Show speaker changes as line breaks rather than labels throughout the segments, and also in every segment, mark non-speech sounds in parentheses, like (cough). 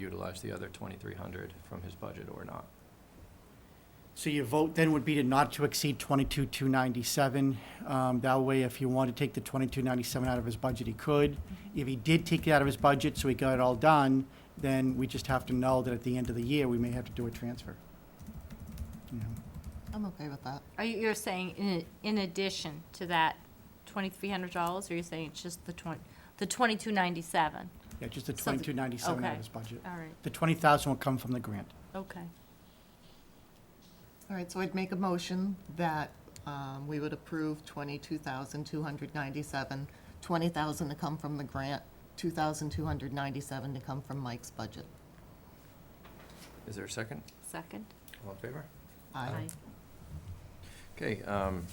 utilize the other 2,300 from his budget or not.
So your vote then would be to not to exceed twenty-two, two ninety-seven. Um, that way, if you wanted to take the twenty-two ninety-seven out of his budget, he could. If he did take it out of his budget, so he got it all done, then we just have to know that at the end of the year, we may have to do a transfer. You know,
I'm okay with that.
Are you, you're saying in, in addition to that twenty-three hundred dollars, or you're saying it's just the twenty, the twenty-two ninety-seven?
Yeah, just the
So the-
twenty-two ninety-seven out
okay.
of his budget.
All right,
The twenty thousand will come from the grant.
okay.
All right, so I'd make a motion that um, we would approve twenty-two thousand, two hundred ninety-seven, twenty thousand to come from the grant, two thousand, two hundred ninety-seven to come from Mike's budget.
Is there a second?
Second?
All in favor?
Aye.
Okay. um,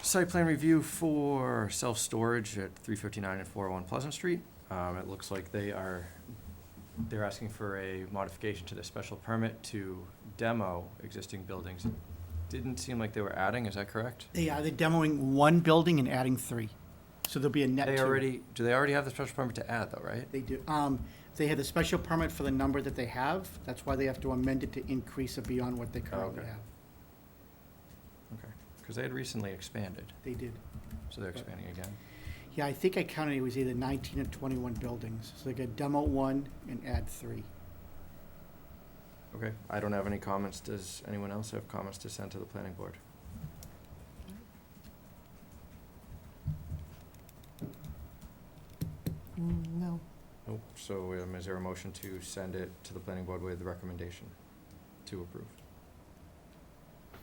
Site plan review for self-storage at 359 and 401 Pleasant Street. Um, It looks like they are, they're asking for a modification to the special permit to demo existing buildings. Didn't seem like they were adding, is that correct?
They are, they're demoing one building and adding three. So there'll be a net two.
They already, do they already have the special permit to add, though, right?
They do. Um, they had the special permit for the number that they have. That's why they have to amend it to increase it beyond what they currently
okay.
have.
Okay, because they had recently expanded,
They did.
so they're expanding again.
Yeah, I think I counted, it was either nineteen or twenty-one buildings. So they could demo one and add three.
Okay, I don't have any comments. Does anyone else have comments to send to the planning board?
Mm, No,
Nope, so um, is there a motion to send it to the planning board with the recommendation to approve?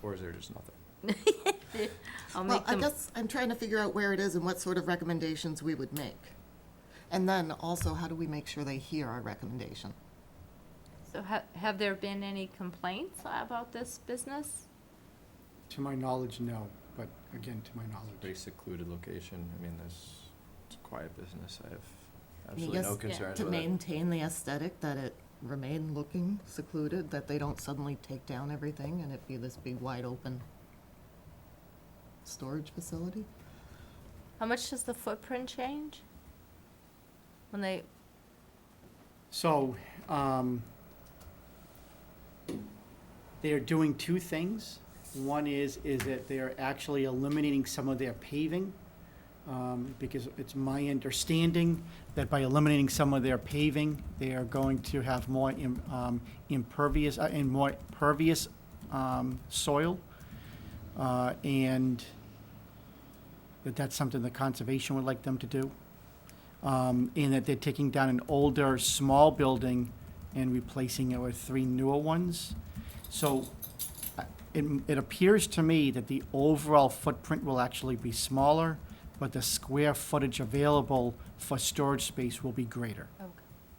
Or is there just nothing?
(laughs) I'll
well,
make
I
them,
guess I'm trying to figure out where it is and what sort of recommendations we would make. And then also, how do we make sure they hear our recommendation?
so have, have there been any complaints about this business?
To my knowledge, no, but again, to my knowledge.
Pretty secluded location, I mean, there's, it's a quiet business, I have absolutely
Yes,
no
yeah,
concerns
To
with it.
maintain the aesthetic, that it remain looking secluded, that they don't suddenly take down everything and it be this big wide open storage facility?
How much does the footprint change? When they,
So, um, they are doing two things. One is, is that they are actually eliminating some of their paving, um, because it's my understanding that by eliminating some of their paving, they are going to have more im- um, impervious, uh, and more pervious um, soil. Uh, And that that's something the conservation would like them to do um, in that they're taking down an older, small building and replacing it with three newer ones. So I- it, it appears to me that the overall footprint will actually be smaller, but the square footage available for storage space will be greater.
okay.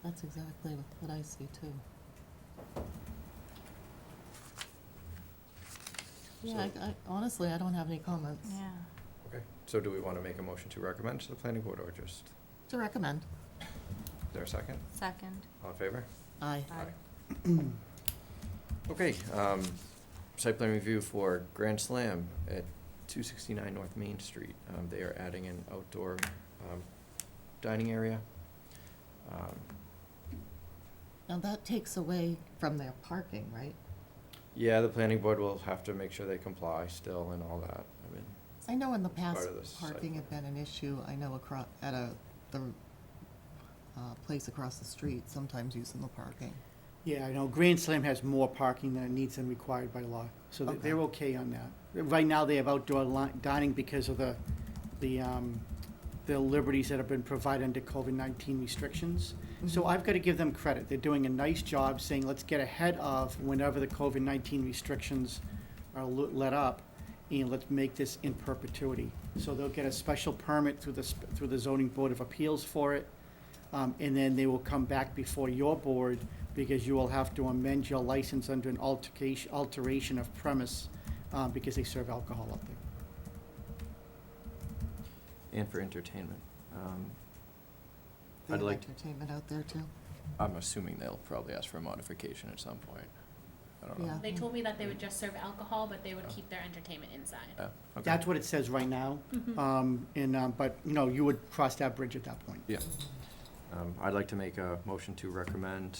That's exactly what I see too. Yeah, I, I- honestly, I don't have any comments
yeah.
Okay, so do we want to make a motion to recommend to the planning board or just, is
to recommend.
there a second?
Second?
All in favor?
Aye.
Okay, um, site plan review for Grand Slam at two sixty-nine North Main Street. Um, they are adding an outdoor, um, dining area. Um,
Now that takes away from their parking, right?
Yeah, the planning board will have to make sure they comply still and all that, I mean,
'Cause I know in the past,
Part of the site
parking had been an issue. I know across, at a, the, uh, place across the street, sometimes using the parking.
Yeah, I know Grand Slam has more parking than it needs and required by law, so they- they're okay on that. Right now, they have outdoor li- dining because of the, the, um, the liberties that have been provided under COVID-19 restrictions. So
Mm-hmm.
I've got to give them credit. They're doing a nice job saying, let's get ahead of whenever the COVID-19 restrictions are lo- let up, and let's make this in perpetuity. So they'll get a special permit through the, sp- through the zoning board of appeals for it, um, and then they will come back before your board, because you will have to amend your license under an altercation, alteration of premise, um, because they serve alcohol up there.
and for entertainment. Um,
They
I'd
have
like,
entertainment out there too.
I'm assuming they'll probably ask for a modification at some point, I don't know.
Yeah.
They told me that they would just serve alcohol, but they would keep their entertainment inside.
Yeah, okay.
That's what it says right now, um, and, um, but, you know, you would cross that bridge at that point.
Yeah, Um, I'd like to make a motion to recommend